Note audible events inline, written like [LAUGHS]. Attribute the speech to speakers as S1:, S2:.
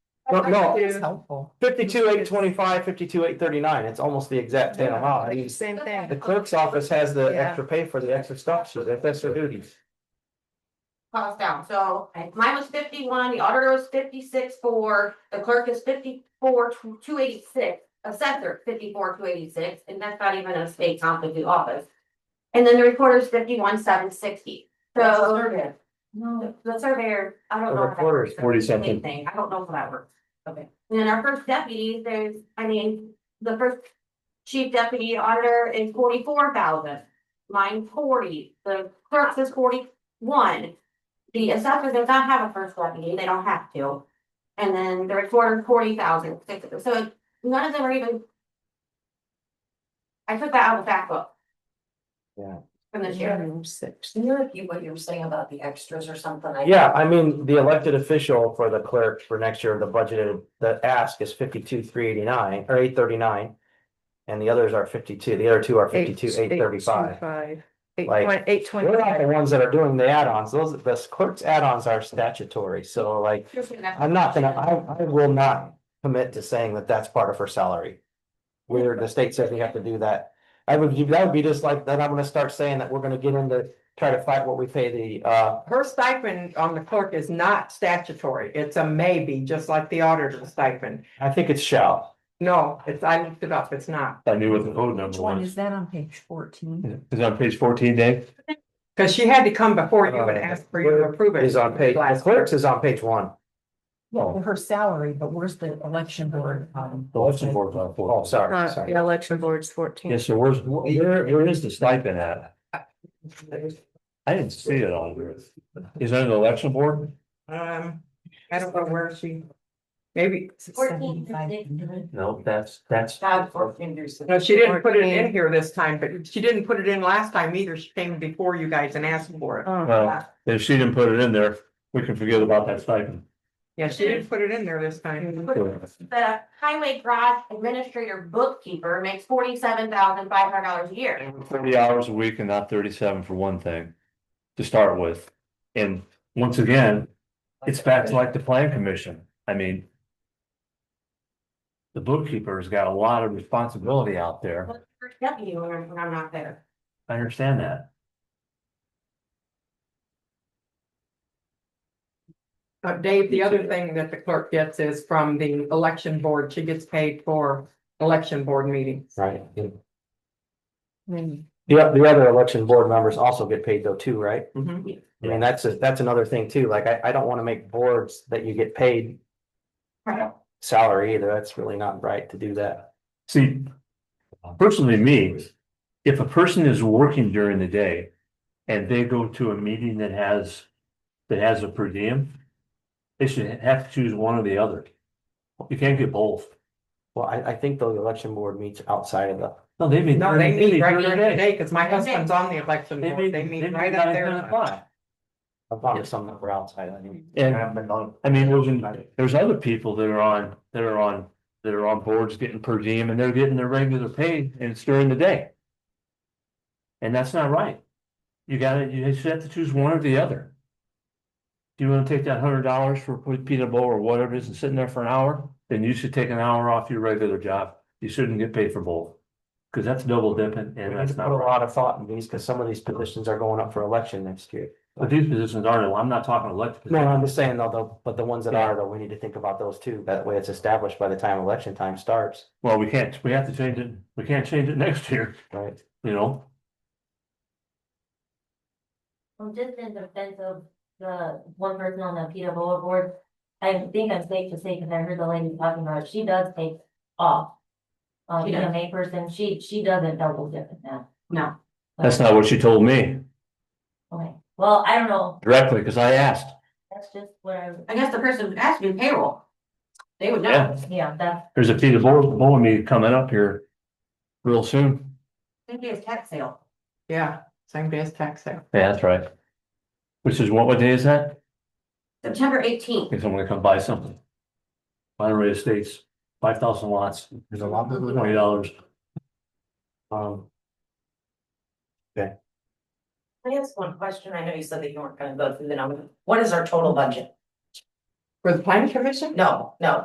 S1: No, no.
S2: It's
S1: it's
S2: helpful.
S1: Fifty-two, eight twenty-five, fifty-two, eight thirty-nine, it's almost the exact same amount, I mean,
S2: Same
S1: the
S2: thing.
S1: clerk's office has the
S2: Yeah.
S1: extra pay for the extra stuff, so that- that's their duties.
S3: cost down, so I- mine was fifty-one, the auditor was fifty-six four, the clerk is fifty-four two eighty-six. Assessor fifty-four two eighty-six, and that's not even a state comp of the office. And then the recorder's fifty-one seven sixty, so
S2: No.
S3: the the surveyor, I
S1: The
S3: don't know. if that
S1: recorder's
S3: works.
S1: 40
S3: Same
S1: something.
S3: Thing, I don't know if that works, okay, and then our first deputy, there's, I mean, the first. Chief deputy auditor is forty-four thousand, mine forty, the clerk's is forty-one. The assessor does not have a first deputy, they don't have to. And then the recorder forty thousand, so none of them are even. I took that out of the back book.
S1: Yeah.
S3: From this year.
S2: Six.
S4: You know, you, what you were saying about the extras or something, I.
S1: Yeah, I mean, the elected official for the clerk for next year, the budgeted, the ask is fifty-two, three eighty-nine, or eight thirty-nine. And the others are fifty-two, the other two are fifty-two, eight thirty-five.
S2: Eight
S1: Like,
S2: twenty, eight
S1: They're not the
S2: twenty.
S1: ones that are doing the add-ons, those, the clerk's add-ons are statutory, so like, I'm not gonna, I, I will not commit to saying that that's part of her salary. Where the state says we have to do that. I would, that would be just like, then I'm gonna start saying that we're gonna get into, try to fight what we pay the, uh,
S2: Her stipend on the clerk is not statutory. It's a maybe, just like the auditor's stipend.
S1: I think it's shall.
S2: No, it's, I looked it up. It's not.
S5: I knew what the code number was.
S4: that on page fourteen?
S5: Is it on page fourteen, Dave?
S2: Because she had to come before you and
S1: Uh,
S2: ask for your approval.
S1: Is on page, the
S2: Last year.
S1: clerks is on page one.
S5: No,
S4: Her salary, but where's the election board? um,
S5: the election board's on
S1: Oh,
S5: fourteen.
S1: sorry, sorry.
S2: election board's fourteen.
S5: Yeah, so where's, where, where is the stipend at? I didn't see it on there. Is that an election board?
S2: Um, I don't know where she, maybe,
S3: Fourteen.
S5: No, that's, that's.
S4: Five, fourteen, there's the-
S2: no, she didn't put it in here this time, but she didn't put it in last time either. She came before you guys and asked for it.
S5: Well, if she didn't put it in there, we can forget about that stipend.
S2: Yeah, she didn't put it in there this time.
S3: The highway garage administrator bookkeeper makes forty-seven thousand five hundred dollars a year.
S5: Thirty hours a week and not thirty-seven for one thing, to start with. And once again, it's back to like the plan commission, I mean. The bookkeeper's got a lot of responsibility out there,
S3: Well, First deputy when when I'm not there.
S5: I understand that.
S2: Uh, Dave, the other thing that the clerk gets is from the election board. She gets paid for election board meetings.
S1: Right. The, the other election board members also get paid though too, right?
S2: Mhm.
S1: I mean, that's, a- that's another thing too, like, I, I don't wanna make boards that you get paid
S3: Right.
S1: salary either, that's really not right to do that.
S5: See, personally, me, if a person is working during the day and they go to a meeting that has, that has a per diem, they should have to choose one or the other. You can't get both.
S1: Well, I, I think the election board meets outside of the,
S5: No, they mean.
S2: No, they meet right here
S5: They
S2: today because my husband's on the election board.
S5: meet,
S2: They
S5: they
S2: meet
S5: meet
S2: right
S5: right
S2: up
S5: at ten
S2: there.
S5: o'clock.
S1: I thought it was something that we're outside of. anyway.
S5: And-
S1: I've been on-
S5: I mean, there's, there's other people that are on, that are on, that are on boards getting per diem and they're getting their regular pay and it's during the day. And that's not right. You gotta, you should have to choose one or the other. Do you wanna take that hundred dollars for pe- peanut bowl or whatever it is and sitting there for an hour? Then you should take an hour off your regular job. You shouldn't get paid for both. Cause that's double dipping
S1: We
S5: and
S1: need
S5: that's
S1: to
S5: not
S1: put a
S5: right.
S1: lot of thought in these, because some of these positions are going up for election next year.
S5: But these positions aren't, I'm not talking elected.
S1: No, I'm
S5: positions.
S1: just saying though, though, but the ones that are though, we need to think about those too, that way it's established by the time election time starts,
S5: Well, we can't, we have to change it. We can't change it [LAUGHS] next year,
S1: right?
S5: you know?
S6: Well, just in defense of the one person on the PWO board, I think I'm safe to say, because I heard the lady talking about, it, she does take off. Um,
S3: She
S6: being
S3: does.
S6: a May person, she, she doesn't double dip in that.
S3: No.
S5: That's not what she told me
S6: Okay, well, I don't know,
S5: directly, because I asked.
S6: that's just what I,
S3: I guess the person who asked me payroll. They would know.
S5: Yeah,
S6: yeah, that's,
S5: there's a Peter Bowl, Bowl meeting coming up here real soon.
S3: Maybe it's tax sale.
S2: Yeah, same day as tax sale.
S5: Yeah, that's right. Which is what, what day is that?
S3: September
S5: I
S3: eighteenth.
S5: think I'm gonna come buy something. Monterey Estates, five thousand lots,
S1: There's a lot of
S5: twenty dollars.
S1: Um,
S4: I have one question, I know you said that you weren't gonna go through the number, what is our total budget?
S2: For the planning commission?
S4: No, no,